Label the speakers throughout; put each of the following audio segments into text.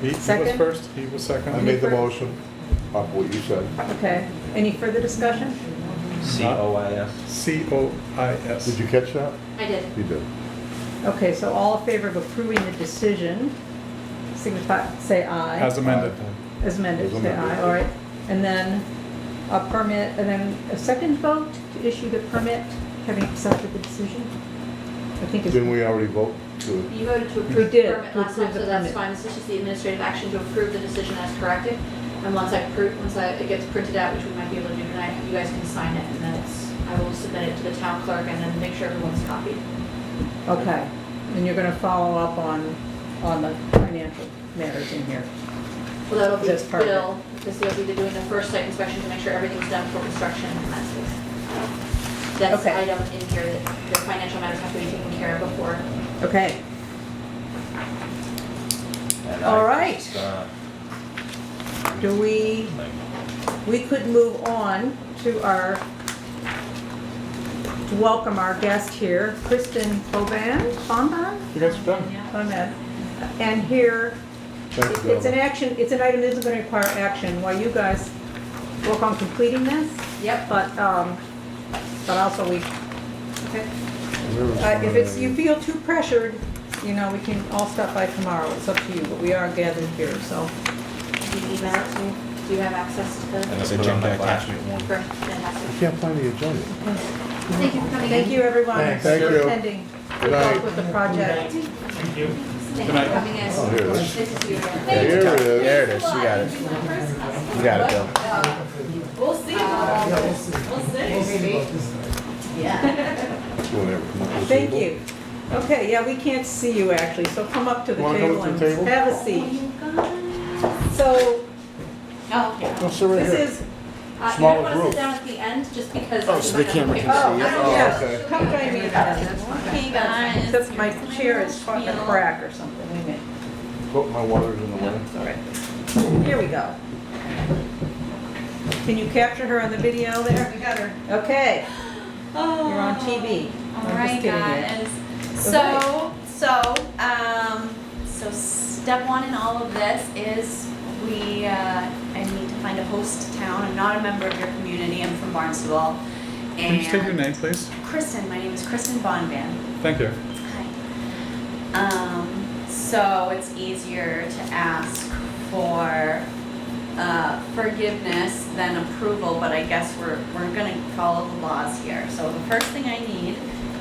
Speaker 1: He- He was
Speaker 2: Second?
Speaker 1: first, he was
Speaker 2: I
Speaker 1: second.
Speaker 2: Any
Speaker 3: I made the
Speaker 2: fur-
Speaker 3: motion of what you said.
Speaker 2: Okay, any further discussion?
Speaker 4: C-O-I-S.
Speaker 1: C O I
Speaker 3: Did
Speaker 1: S.
Speaker 3: you catch that?
Speaker 5: I did.
Speaker 3: You did.
Speaker 2: Okay, so all in favor of approving the decision, signify, say aye.
Speaker 1: As amended.
Speaker 2: As amended,
Speaker 3: As
Speaker 2: say
Speaker 3: amended.
Speaker 2: aye, all right. And then a permit, and then a second vote to issue the permit, having accepted the decision? I think it's,
Speaker 3: Didn't we already vote to,
Speaker 5: You voted to
Speaker 2: We
Speaker 5: approve the
Speaker 2: did,
Speaker 5: permit
Speaker 2: to
Speaker 5: last
Speaker 2: approve
Speaker 5: time,
Speaker 2: the
Speaker 5: so that's
Speaker 2: permit.
Speaker 5: fine. This is just the administrative action to approve the decision as corrected. And once I prove, once I, it gets printed out, which we might be able to do tonight, you guys can sign it and then it's, I will submit it to the town clerk and then make sure everyone's copied.
Speaker 2: okay. And you're gonna follow up on, on the financial matters in here.
Speaker 5: Well, that'll be
Speaker 2: That's perfect.
Speaker 5: Bill, because he'll be doing the first site inspection to make sure everything's done for construction and that's it. That's the
Speaker 2: Okay.
Speaker 5: item in here that the financial matters have to be taken care of before.
Speaker 2: Okay,
Speaker 4: And I
Speaker 2: All right.
Speaker 4: just, uh,
Speaker 2: do we,
Speaker 4: like,
Speaker 2: we could move on to our, to welcome our guest here, Kristen Boban, Bonbon?
Speaker 1: You guys are done.
Speaker 5: Yeah.
Speaker 2: on that. And here,
Speaker 3: thank you,
Speaker 2: it's an
Speaker 3: gentlemen.
Speaker 2: action, it's an item that isn't going to require action while you guys work on completing this,
Speaker 5: Yep,
Speaker 2: but, um, but also we,
Speaker 5: okay.
Speaker 2: uh, if it's, you feel too pressured, you know, we can all stop by tomorrow, it's up to you, but we are gathered here, so.
Speaker 5: Do you email it to me? Do you have access to
Speaker 4: and
Speaker 5: the,
Speaker 4: I
Speaker 6: It's
Speaker 4: put it on
Speaker 6: agenda
Speaker 4: my flash.
Speaker 6: attachment one.
Speaker 5: for,
Speaker 3: I
Speaker 5: fantastic.
Speaker 3: can't find the agenda.
Speaker 5: Thank you for coming in.
Speaker 2: Thank you, everyone,
Speaker 1: Thanks.
Speaker 2: for
Speaker 3: Thank you.
Speaker 2: attending. Good luck
Speaker 3: night.
Speaker 2: with the project.
Speaker 1: Thank you.
Speaker 5: Thank you
Speaker 1: Good night.
Speaker 5: for coming in.
Speaker 3: Oh, here it is.
Speaker 5: Nice to see you.
Speaker 7: uh,
Speaker 3: Here it is.
Speaker 4: There it is, you got it. You got it, Bill.
Speaker 5: We'll see. We'll see. Yeah.
Speaker 3: You wanna ever come up to the
Speaker 2: Thank
Speaker 3: table?
Speaker 2: you. Okay, yeah, we can't see you actually, so come up to the
Speaker 1: Wanna come
Speaker 2: table
Speaker 1: up to
Speaker 2: and
Speaker 1: the table?
Speaker 2: have a
Speaker 7: uh,
Speaker 2: seat. So,
Speaker 5: Oh, yeah.
Speaker 3: No, sit right here.
Speaker 2: this is,
Speaker 5: Uh, you might
Speaker 3: Smaller
Speaker 5: want to
Speaker 3: group.
Speaker 5: sit down at the end, just because.
Speaker 4: Oh, so the camera can
Speaker 2: oh,
Speaker 4: see it?
Speaker 5: I don't
Speaker 2: yeah,
Speaker 5: know.
Speaker 3: okay.
Speaker 2: come join me in that.
Speaker 5: Hey, guys.
Speaker 2: Because my chair is caught in a crack or something, wait a minute.
Speaker 3: Put my waters in the way.
Speaker 2: It's all right. Here we go. Can you capture her on the video there? We got her. Okay,
Speaker 7: Oh.
Speaker 2: you're on TV.
Speaker 7: All
Speaker 2: I'm just
Speaker 7: right,
Speaker 2: kidding you.
Speaker 7: guys.
Speaker 2: Okay.
Speaker 7: So, so, um, so step one in all of this is we, uh, I need to find a host town. I'm not a member of your community. I'm from Barnstable.
Speaker 1: Can you state your
Speaker 7: And-
Speaker 1: name, please?
Speaker 7: Kristen. My name is Kristen Bonvan.
Speaker 1: Thank you.
Speaker 7: Hi. Um, so it's easier to ask for uh, forgiveness than approval, but I guess we're, we're gonna follow the laws here. So the first thing I need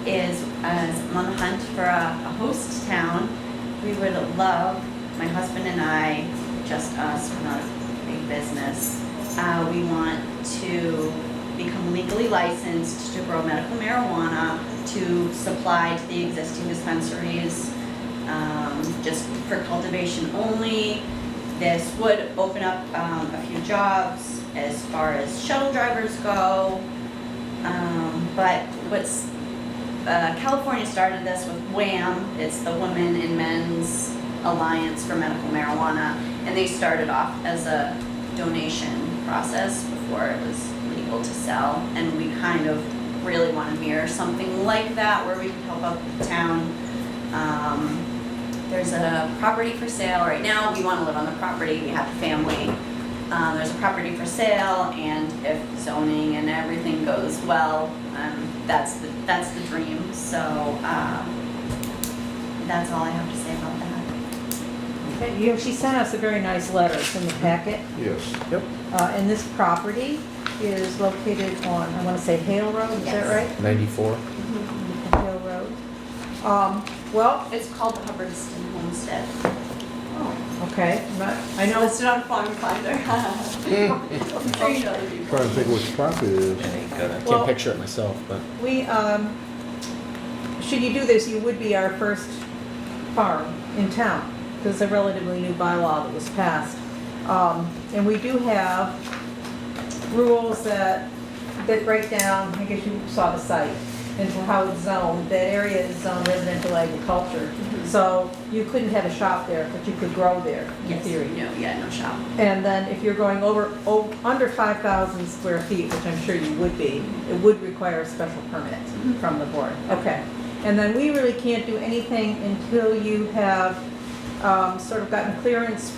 Speaker 7: is, as I'm on the hunt for a, a host town, we would love, my husband and I, just us, we're not a big business. Uh, we want to become legally licensed to grow medical marijuana, to supply to the existing dispensaries, um, just for cultivation only. This would open up, um, a few jobs as far as shuttle drivers go. Um, but what's, uh, California started this with WHAM, it's the Women and Men's Alliance for Medical Marijuana, and they started off as a donation process before it was legal to sell, and we kind of really wanna mirror something like that where we can help out the town. Um, there's a property for sale right now, we wanna live on the property, we have a family. Um, there's a property for sale and if zoning and everything goes well, um, that's the, that's the dream, so, um, that's all I have to say about that.
Speaker 2: Okay, You know, she sent us a very nice letter It's in the packet.
Speaker 3: Yes.
Speaker 2: Uh, And this property is located on, I want to say Hale Road, is that
Speaker 7: Yes.
Speaker 2: right? Mm-hmm,
Speaker 4: 94.
Speaker 2: Hale Road. Um, Well,
Speaker 7: It's called the Hubbardston Homestead.
Speaker 2: okay, but I know,
Speaker 7: Listed on Farm Finder. I'm sure you know the people.
Speaker 3: Trying to think which property it is.
Speaker 4: And I gotta-
Speaker 2: Well-
Speaker 4: Can't picture it myself, but
Speaker 2: we, um, should you do this, you would be our first farm in town. This is a relatively new bylaw that was passed. Um, And we do have rules that, that break down, I guess you saw the site, into how it's zoned. That area is zoned residential agriculture. So you couldn't have a shop there, but you could grow there, in
Speaker 7: Yes,
Speaker 2: theory.
Speaker 7: no, yeah, no shop.
Speaker 2: And then if you're going over, o- under 5,000 square feet, which I'm sure you would be, it would require a special permit from the board. Okay. And then we really can't do anything until you have um, sort of gotten clearance